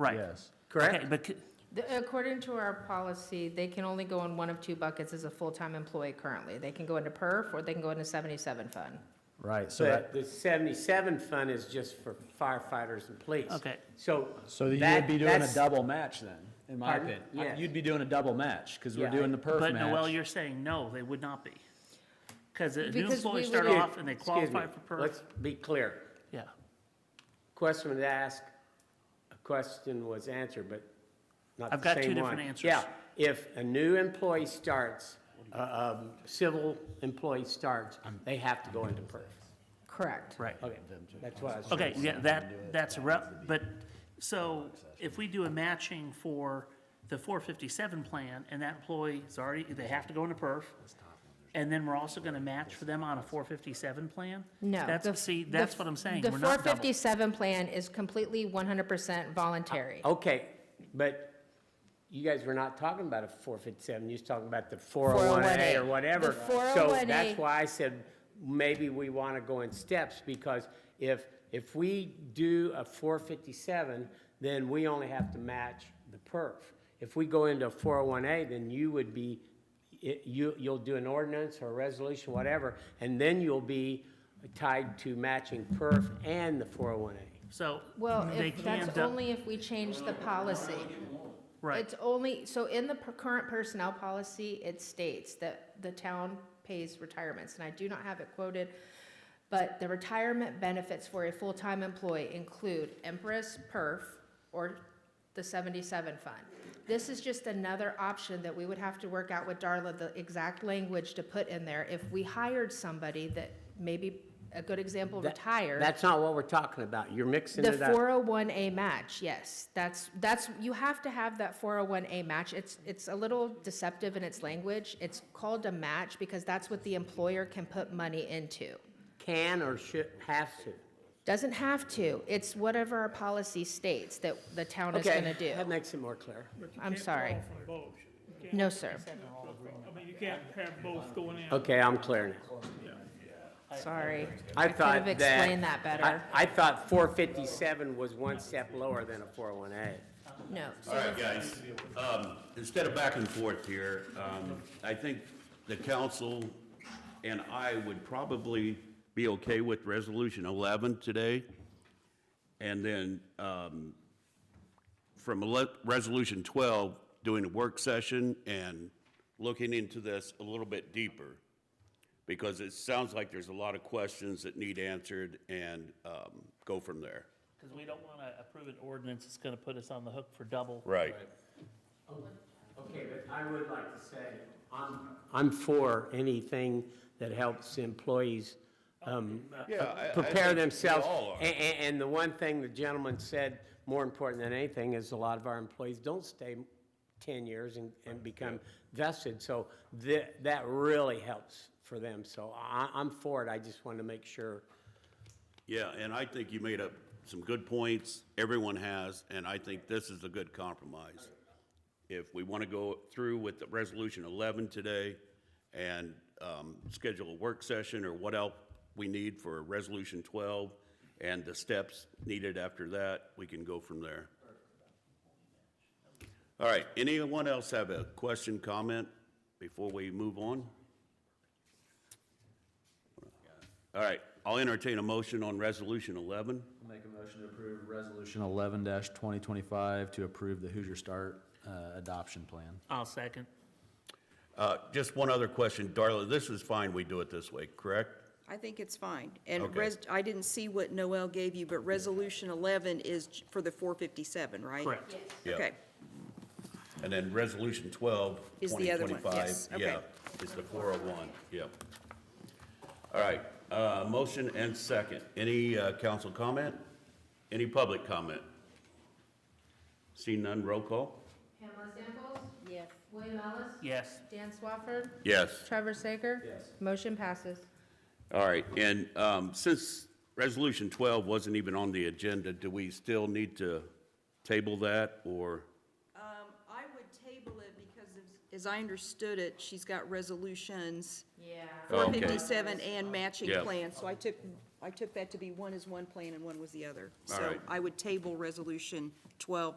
Right. Yes. Okay, correct? but, c- The- According to our policy, they can only go in one of two buckets as a full-time employee currently. They can go into perf, or they can go into 77 fund. Right, so that, But the seventy-seven fund is just for firefighters and police. Okay. So. so you that- would be doing a that's- double match then, in my Pardon? opinion. Yes. You'd be doing a double match, because we're Yeah. doing the perf but Noel, match. you're saying, no, they would not be. Because the new Because employees we start would- off and they Excuse me. qualify for perf. Let's be clear. Yeah, Question was asked, a question was answered, but not the same one. I've got two different answers. Yeah, if a new employee starts, uh, um, civil employee starts, they have to go into PERF. Correct. right. Okay, that's what I was trying to Okay, yeah, that, that's a rep, but, so if we do a matching for the four fifty-seven plan and that employee is already, they have to go into perf, and then we're also gonna match for them on a four fifty-seven plan? No. the- That's, see, the- that's what I'm saying, The we're not double. 457 plan is completely 100% voluntary. Okay, but you guys were not talking about a four fifty-seven, you was talking about the four oh one A 401A. or whatever. The So 401A. that's why I said, maybe we want to go in steps, because if, if we do a four fifty-seven, then we only have to match the perf. If we go into a four oh one A, then you would be, it- you, you'll do an ordinance or a resolution, whatever, and then you'll be tied to matching perf and the four oh one A. So, Well, they if, can, that's dou- only if we change the policy. right, It's only, so in the per- current personnel policy, it states that the town pays retirements, and I do not have it quoted, but the retirement benefits for a full-time employee include Empress, PERF, or the 77 fund. This is just another option that we would have to work out with Darla, the exact language to put in there. If we hired somebody that maybe, a good example, That- retired. That's not what we're talking about, you're mixing The it up. four oh one A match, yes, that's, that's, you have to have that four oh one A match, it's, it's a little deceptive in its language. It's called a match because that's what the employer can put money into. can or should, have to. Doesn't have to, it's whatever our policy states that the town is gonna do. That makes it more clear. I'm sorry, from both. You no, sir, can't- I mean, you can't have both going in. Okay, I'm clear now. sorry. I could have thought that. explained that I- better, I thought four fifty-seven was one step lower than a four oh one A. no. All right, guys, um, instead of back and forth here, um, I think the council and I would probably be okay with resolution eleven today. And then, um, from ele- resolution twelve, doing a work session and looking into this a little bit deeper. Because it sounds like there's a lot of questions that need answered and, um, go from there. Because we don't want to approve an ordinance that's going to put us on the hook for double. Right. Okay, but I would like to say, I'm. I'm for anything that helps employees, um, Yeah, I- I prepare think we themselves. all are. A- a- and the one thing the gentleman said, more important than anything, is a lot of our employees don't stay ten years and, and become vested, so that, that really helps for them, so I, I'm for it, I just wanted to make sure. Yeah, and I think you made up some good points, everyone has, and I think this is a good compromise. If we want to go through with the Resolution 11 today and um, schedule a work session or what else we need for Resolution 12 and the steps needed after that, we can go from there. All right, anyone else have a question, comment before we move on? All right, I'll entertain a motion on Resolution 11. I'll make a motion to approve resolution eleven twenty twenty-five to approve the Hoosier Start, uh, adoption plan. I'll second. Uh, Just one other question, Darla, this is fine, we do it this way, correct? I think it's fine. And Okay. res, I didn't see what Noel gave you, but resolution 11 is j- for the 457, right? Correct. Yeah. Okay, And then Resolution 12, Is the other one, 2025, yes, okay. yeah, is the 401, yep. All right, uh, motion and second. Any uh, council comment? Any public comment? See none, roll call? Pamela Samples? Yes. William Ellis? Yes. Dan Swafford? Yes. Trevor Sager? Yes. Motion passes. All right, and um, since Resolution 12 wasn't even on the agenda, do we still need to table that, or? I would table it because as- as I understood it, she's got resolutions, Yeah. Oh, Okay. 457 and matching Yeah. plans. So I took, I took that to be one is one plan and one was the other. All So right. I would table resolution 12